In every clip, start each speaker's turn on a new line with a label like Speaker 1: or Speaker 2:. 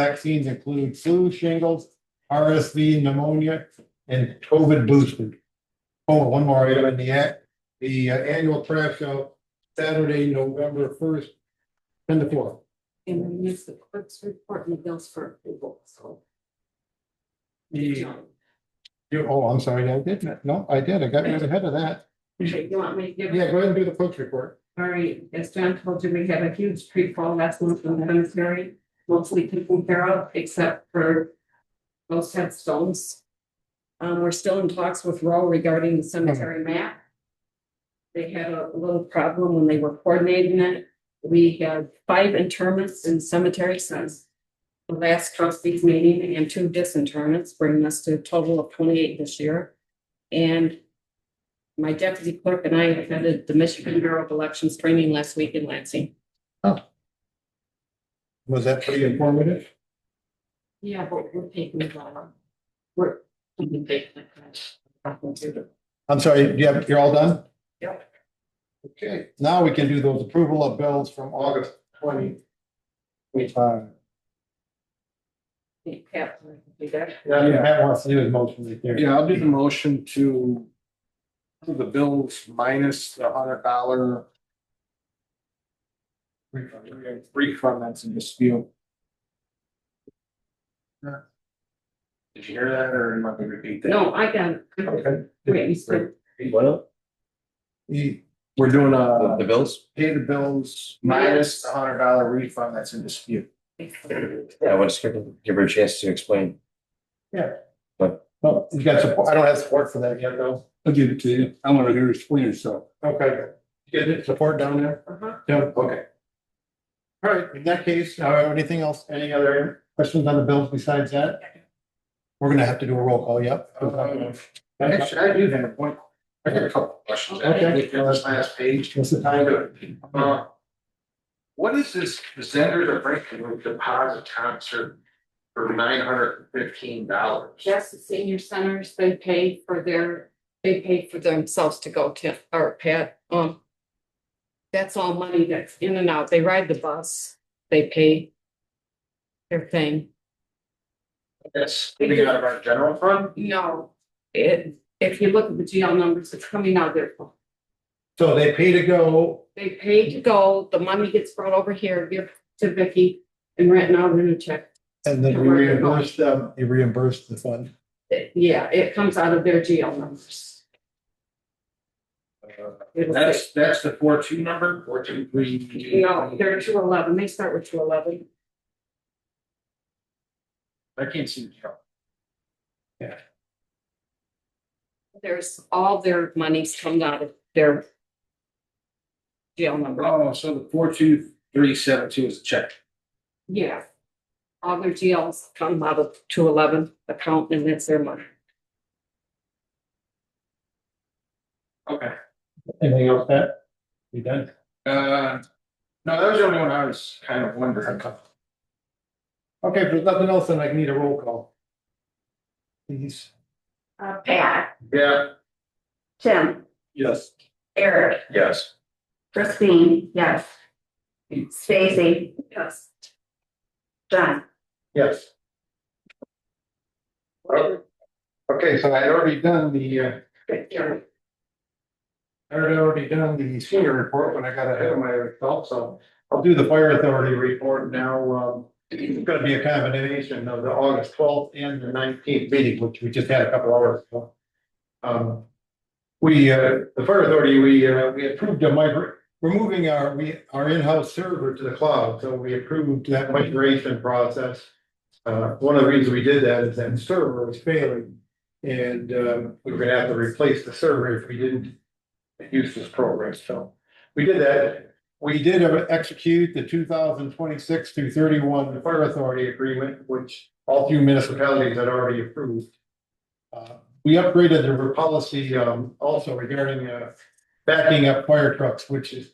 Speaker 1: vaccines include flu, shingles, RSV, pneumonia, and COVID boosted. Oh, one more item in the act, the uh, annual trash show, Saturday, November first, ten to four.
Speaker 2: And we use the clerk's report and the bills for approval, so.
Speaker 1: The, you- oh, I'm sorry, I didn't, no, I did, I got right ahead of that.
Speaker 2: Okay, You want me to give? it?
Speaker 1: Yeah, go ahead and do the clerk's report.
Speaker 2: All right, as John told you, we have a huge tree fall last month in Simsbury, mostly taken care of, except for most headstones. Um, we're still in talks with Row regarding the cemetery map. They had a little problem when they were coordinating it. We have five interments in cemetery since the last trustees meeting and two disinterments, bringing us to a total of twenty-eight this year. And my deputy clerk and I attended the Michigan Bureau of Elections training last week in Lansing.
Speaker 1: Was that pretty informative?
Speaker 2: Yeah, but we're taking the dollar. We're. we can take the cash.
Speaker 1: I'm sorry, you have, you're all done?
Speaker 2: Yep.
Speaker 1: Okay, now we can do those approval of bills from August twenty. uh, Twenty-five.
Speaker 2: Yeah, we got it.
Speaker 1: Yeah, Matt wants to do his motion right there.
Speaker 3: Yeah, I'll do the motion to approve the bills minus the hundred dollar refund that's in dispute. Did you hear that or am I gonna repeat that?
Speaker 2: No, I got it.
Speaker 3: Okay.
Speaker 2: Wait, you said-
Speaker 1: He-
Speaker 3: We're doing
Speaker 4: The
Speaker 3: a
Speaker 4: the bills?
Speaker 3: pay the bills minus the hundred dollar refund that's in dispute.
Speaker 4: Yeah, I want to give- give her a chance to explain.
Speaker 1: no, you got support, I don't have support for that yet, though.
Speaker 5: I'll give it to you. I want to hear it explain itself.
Speaker 1: Okay. You get support down there?
Speaker 2: Uh-huh.
Speaker 1: Yeah, okay. All right, in that case, uh, anything else, any other questions on the bills besides that? We're gonna have to do a roll call, yep.
Speaker 3: Um, Actually, I do have one, I got a couple of questions.
Speaker 1: Okay.
Speaker 3: On this last page.
Speaker 1: What's the
Speaker 3: I
Speaker 1: time?
Speaker 3: do. Uh, What is this Zender to Franklin deposit concert for nine hundred and fifteen dollars?
Speaker 2: That's the senior centers, they paid for their, they paid for themselves to go to, or Pat, um. That's all money that's in and out, they ride the bus, they pay. Their thing,
Speaker 3: That's coming out of our general fund?
Speaker 2: no, it, if you look at the GL numbers, it's coming out of their phone.
Speaker 1: So they pay to go,
Speaker 2: They pay to go, the money gets brought over here, give to Vicky and written out in a check.
Speaker 1: and then we reimburse them, you reimburse the fund.
Speaker 2: It- Yeah, it comes out of their GL numbers. It'll say-
Speaker 3: Uh, That's, that's the four two number, four two three.
Speaker 2: No, they're two eleven, they start with two eleven.
Speaker 3: I can't see the count.
Speaker 2: There's, all their monies come out of their GL number,
Speaker 3: Oh, so the four two three seven two is a check.
Speaker 2: yeah. All their GLs come out of two eleven account and that's their money.
Speaker 3: Okay.
Speaker 1: Anything else, Pat? You done?
Speaker 3: Uh, no, that was the only one I was kind of wondering.
Speaker 1: Okay, if there's nothing else, then I can need a roll call. Please.
Speaker 6: Uh, Pat,
Speaker 3: Yeah.
Speaker 6: Tim,
Speaker 3: Yes.
Speaker 6: Eric,
Speaker 3: Yes.
Speaker 6: Christine, yes. Stacy,
Speaker 2: Yes.
Speaker 6: John,
Speaker 1: Yes. Okay, so I had already done the, uh, I had already done the senior report when I got ahead of myself, so I'll do the fire authority report now. Um, it's gonna be a combination of the August twelfth and the nineteenth meeting, which we just had a couple hours ago. Um, we, uh, the fire authority, we, uh, we approved a migrate, we're moving our, we, our in-house server to the cloud, so we approved that migration process. Uh, one of the reasons we did that is that server was failing. And, um, we were gonna have to replace the server if we didn't use this program, so we did that. We did execute the two thousand twenty-six through thirty-one fire authority agreement, which all few municipalities had already approved. Uh, we upgraded the policy, um, also regarding, uh, backing up fire trucks, which is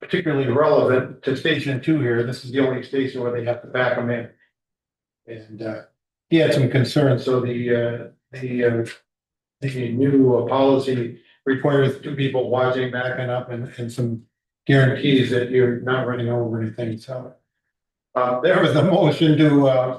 Speaker 1: particularly relevant to station two here. This is the only station where they have to back them in. And, uh, he had some concerns, so the, uh, the, uh, the new uh, policy requires two people watching backing up and, and some guarantees that you're not running over anything, so. Uh, there was a motion to, uh,